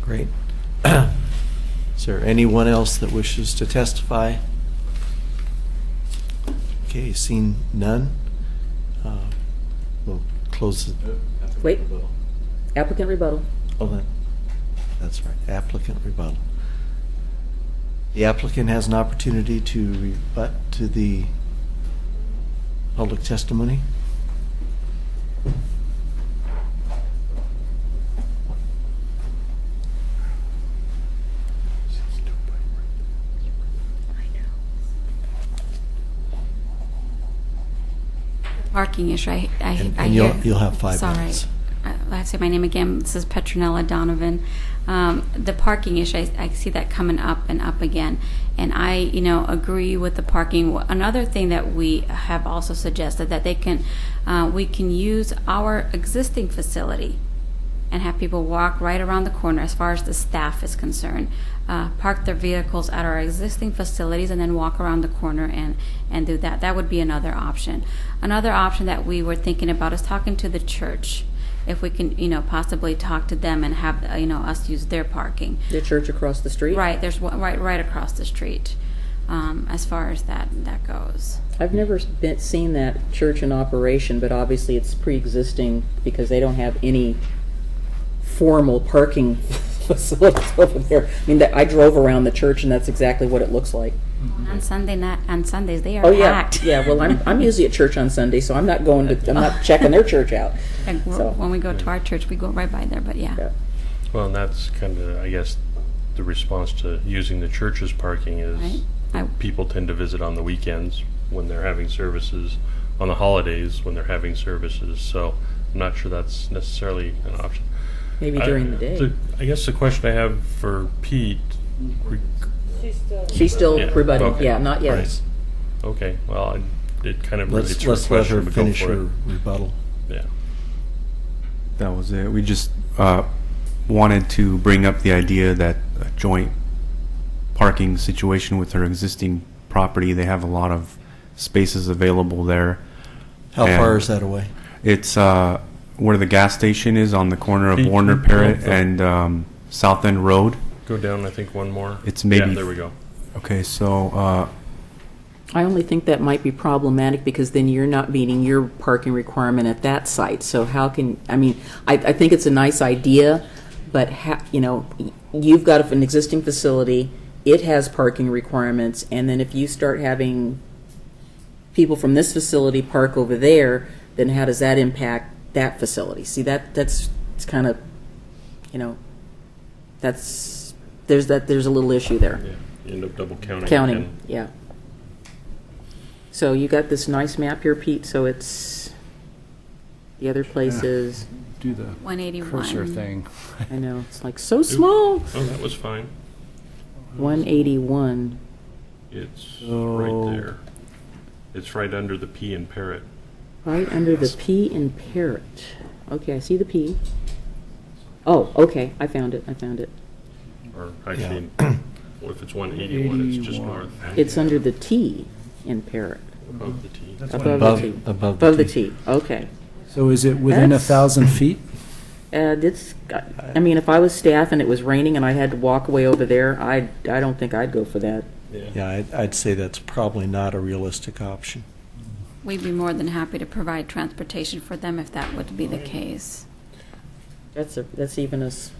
Great. Is there anyone else that wishes to testify? Okay, seeing none, uh, we'll close the, Wait. Applicant rebuttal. oh, that- that's right, applicant rebuttal. The applicant has an opportunity to rebut to the public testimony. Parking issue, I, I, And- I and you'll- hear- you'll have five It's all right. minutes. I I have to say my name again. This is Petronella Donovan. Um, the parking issue, I, I see that coming up and up again. And I, you know, agree with the parking. Another thing that we have also suggested that they can, uh, we can use our existing facility and have people walk right around the corner as far as the staff is concerned. Uh, park their vehicles at our existing facilities and then walk around the corner and, and do that. That would be another option. Another option that we were thinking about is talking to the church. If we can, you know, possibly talk to them and have, uh, you know, us use their parking. The church across the street? Right, there's one right, right across the street um, as far as that, that goes. I've never been, seen that church in operation, but obviously it's pre-existing because they don't have any formal parking facilities over there. I mean, that- I drove around the church and that's exactly what it looks like. On Sunday night, on Sundays, they are Oh, yeah, packed. yeah, well, I'm, I'm usually at church on Sunday, so I'm not going to, I'm not checking their church out. Like, we're- So- when we go to our church, we go right by there, but Yeah. Well, and that's kind of, I guess, the response to using the church's parking Right. is I- people tend to visit on the weekends when they're having services, on the holidays when they're having services. So I'm not sure that's necessarily an option. Maybe I- during the day. the- I guess the question I have for Pete, re- She's still Yeah, rebutting, okay. yeah, not yet. Right. okay, well, I- it kind of relates Let's, to her let's let her question, but go finish for it. her rebuttal. Yeah. That was it. We just uh, wanted to bring up the idea that a joint parking situation with their existing property, they have a lot of spaces available there. How And- far is that away? It's uh, where the gas station is on the corner of Pete, Warner Pete, Parrot yeah. and um, South End Road. Go down, I think, one more. It's Yeah, maybe- there we go. Okay, so uh, I only think that might be problematic because then you're not meeting your parking requirement at that site. So how can, I mean, I, I think it's a nice idea, but ha, you know, y- you've got an existing facility, it has parking requirements, and then if you start having people from this facility park over there, then how does that impact that facility? See, that, that's, it's kind of, you know, that's, there's that, there's a little issue there. Yeah, you end up double counting. Counting, again. yeah. So you got this nice map here, Pete, so it's, the other places, do the 181. cursor thing. I know, it's like so small. Oh, that was fine. 181. It's So- right there. It's right under the P in parrot. Right under the P in Parrot. Okay, I see the P. Oh, okay, I found it, I found it. Or actually, well, if it's 181, it's just 81. north It's under the T in Parrot. of the T. Above the T. above the Above the T. T, okay. So is it within a That's- thousand feet? Uh, it's, I mean, if I was staff and it was raining and I had to walk away over there, I, I don't think I'd go for that. Yeah, I'd, I'd say that's probably not a realistic option. We'd be more than happy to provide transportation for them if that would be the case. That's a, that's even a s-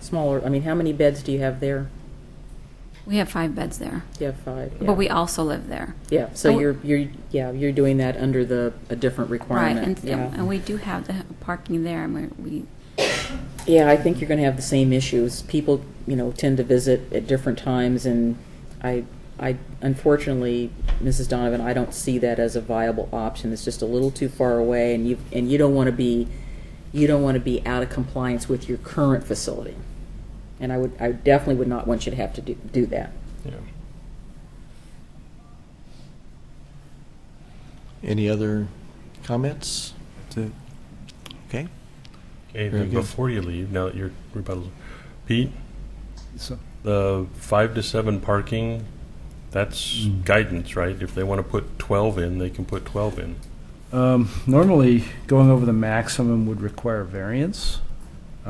smaller, I mean, how many beds do you have there? We have five beds there, You have five. yeah. but we also live there. Yeah, so Oh. you're, you're, yeah, you're doing that under the, a different Right, and, requirement. yeah. and we do have the parking there, and we- we, Yeah, I think you're gonna have the same issues. People, you know, tend to visit at different times and I, I, unfortunately, Mrs. Donovan, I don't see that as a viable option. It's just a little too far away and you, and you don't wanna be, you don't wanna be out of compliance with your current facility. And I would, I definitely would not want you to have to do, do that. Yeah. Any other comments? that's it. Okay. Okay, Very then good. before you leave, now that your rebuttal, Pete, So, the five to seven parking, that's Mm. guidance, right? If they want to put 12 in, they can put 12 in. um, normally, going over the maximum would require variance.